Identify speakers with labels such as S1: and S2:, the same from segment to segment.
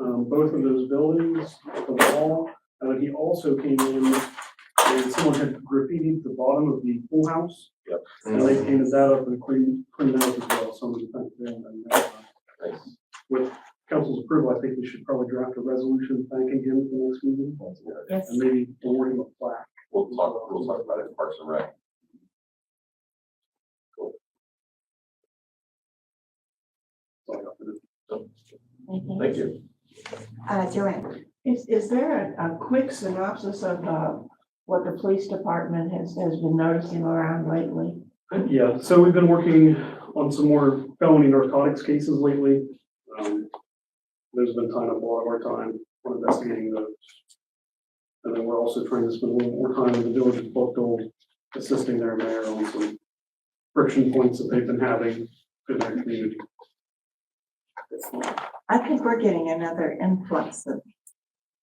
S1: um, both of those buildings, the wall. And then he also came in and someone had graffitied the bottom of the pool house. And they
S2: Mm-hmm.
S1: painted that up and cleaned, cleaned out as well, some of the things there. and, uh,
S3: Nice.
S1: With council's approval, I think we should probably draft a resolution thanking him for the next meeting
S4: Yes.
S1: and maybe award him a plaque.
S3: We'll talk, we'll talk about it in Parks and Rec.
S1: That's all I got for this.
S4: Mhm.
S3: Thank you.
S4: Uh, Joanne,
S5: Is, is there a, a quick synopsis of, uh, what the police department has, has been noticing around lately?
S1: Yeah, so we've been working on some more felony narcotics cases lately. Um, There's been tying up a lot of our time on investigating those. And then we're also trying to spend a little more time in the village of Buckle, assisting their mayor on some friction points that they've been having in their community.
S4: I think we're getting another influx of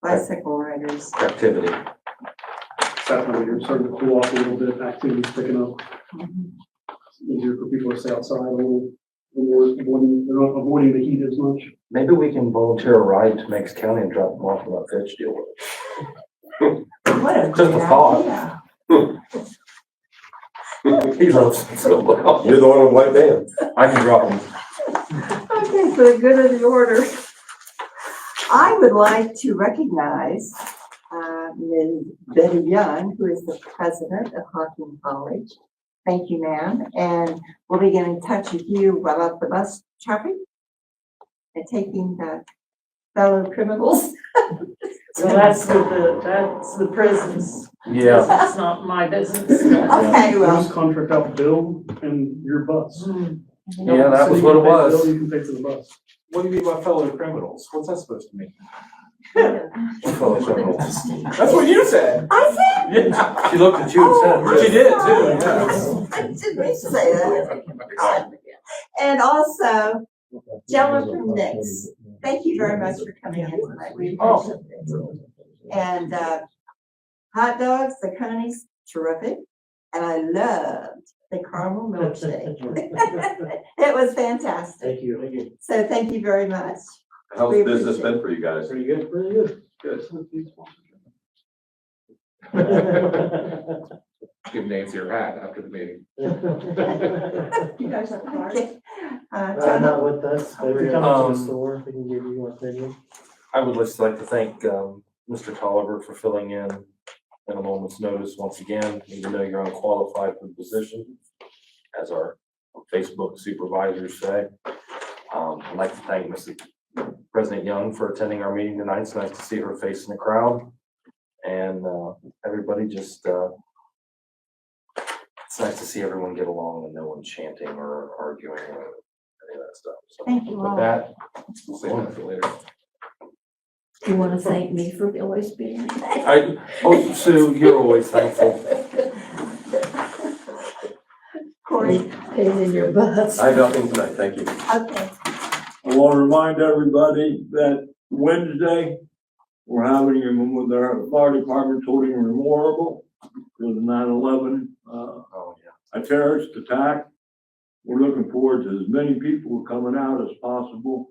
S4: bicycle riders.
S3: Activity.
S1: Saturday, you're starting to cool off a little bit, activity's picking up. It's Easier for people to stay outside a little, a little more, avoiding- they're not avoiding the heat as much.
S2: Maybe we can volunteer a ride to Meigs County and drop them off in that fetch deal.
S5: What a
S2: Just a
S5: great
S2: thought.
S5: idea.
S2: He loves it so well.
S3: You're the one with white band.
S2: I can drop them.
S4: Okay, for the good of the order. I would like to recognize uh, Ms. Betty Young, who is the president of Hawking College. Thank you, ma'am, and we'll be getting in touch with you about the bus traffic and taking the fellow criminals.
S6: Well, that's with the, that's the prisons.
S2: Yeah.
S6: It's not my business.
S4: Okay,
S1: You
S4: well,
S1: just contract out Bill and your bus.
S2: Yeah, that was what
S1: Bill,
S2: it was.
S1: you can pay for the bus.
S2: What do you mean by fellow criminals? What's that supposed to mean? Fellow criminals.
S3: That's what you said.
S4: I said,
S2: She looked at you and said.
S4: She did, too,
S2: yeah.
S4: I didn't say that. And also, Jella from Nix, thank you very much for coming in tonight. We
S7: Oh.
S4: appreciate it. And, uh, hot dogs, the Coney's terrific, and I loved the caramel milkshake. It was fantastic.
S8: Thank you. Thank you.
S4: So thank you very much.
S3: How's
S4: We
S3: business
S4: appreciate
S3: been for you guys?
S8: Pretty good, pretty good.
S3: Good.
S2: Give Nancy her hat after the meeting.
S5: You guys have cards?
S4: Okay. Uh,
S8: Uh,
S4: John,
S8: not with us, but if you
S2: Um,
S8: come to the store, we can give you one thing.
S2: I would just like to thank, um, Mr. Tolliver for filling in at a moment's notice once again, even though you're unqualified for the position, as our Facebook supervisors say. Um, I'd like to thank Mrs. President Young for attending our meeting tonight. It's nice to see her face in the crowd. And, uh, everybody just, uh, it's nice to see everyone get along and no one chanting or arguing or any of that stuff. So
S4: Thank you
S2: With
S4: all.
S2: that, we'll save that for later.
S9: You want to thank me for always being there?
S2: I, oh, Sue, you're always thankful.
S4: Corey,
S9: Pain in your butts.
S3: I have nothing tonight. Thank you.
S4: okay.
S7: I want to remind everybody that Wednesday, we're having a mem- with our fire department's holding a memorial for the 9/11 uh,
S2: Oh, yeah.
S7: a terrorist attack. We're looking forward to as many people coming out as possible.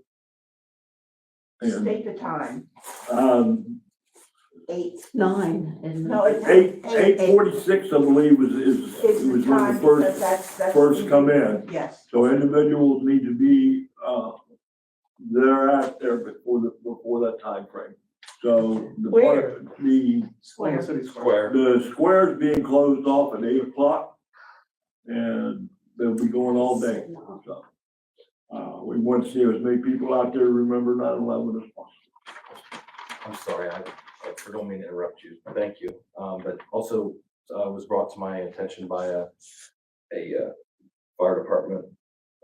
S7: And,
S5: State the time.
S7: um,
S4: Eight.
S9: Nine and.
S5: No, it's.
S7: eight, eight forty-six, I believe, was, is,
S5: It's
S7: was
S5: the
S7: when
S5: time,
S7: the
S5: because
S7: first,
S5: that's, that's.
S7: first come in.
S5: Yes.
S7: So individuals need to be, uh, they're out there before the, before that time frame. So the,
S5: Where?
S7: par- the,
S5: Square.
S1: City Square.
S2: Square.
S7: the square's being closed off at eight o'clock and they'll be going all day. So, uh, we want to see as many people out there remember 9/11 as possible.
S2: I'm sorry, I, I don't mean to interrupt you. Thank you. Um, but also, uh, was brought to my attention by a, a, uh, fire department,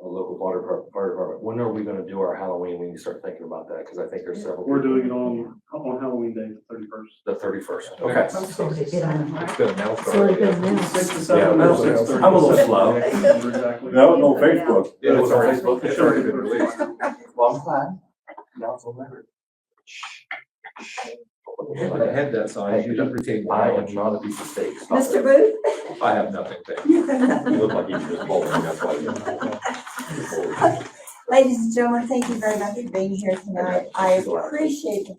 S2: a local water depart- fire department. When are we gonna do our Halloween? We need to start thinking about that, because I think there's several.
S1: We're doing it on, Um, on Halloween day, the thirty-first.
S2: The thirty-first. Okay. It's gonna melt
S9: It's really
S2: already.
S9: good now.
S1: Six to seven
S2: Yeah,
S1: or
S2: I'm a
S1: six
S2: little-
S1: thirty.
S2: I'm a little slow.
S1: Exactly.
S7: That was on Facebook.
S2: It was on Facebook. It's already been released. Well, I'm glad. Now it's on record.
S8: If I had that sign, you'd have to take
S2: I am not a piece of steak. Stop
S4: Mr.
S2: it.
S4: Booth?
S8: I have nothing, thank you.
S3: You look like you just bowling. That's why. you're-
S4: Ladies and gentlemen, thank you very much for being here tonight. I appreciate the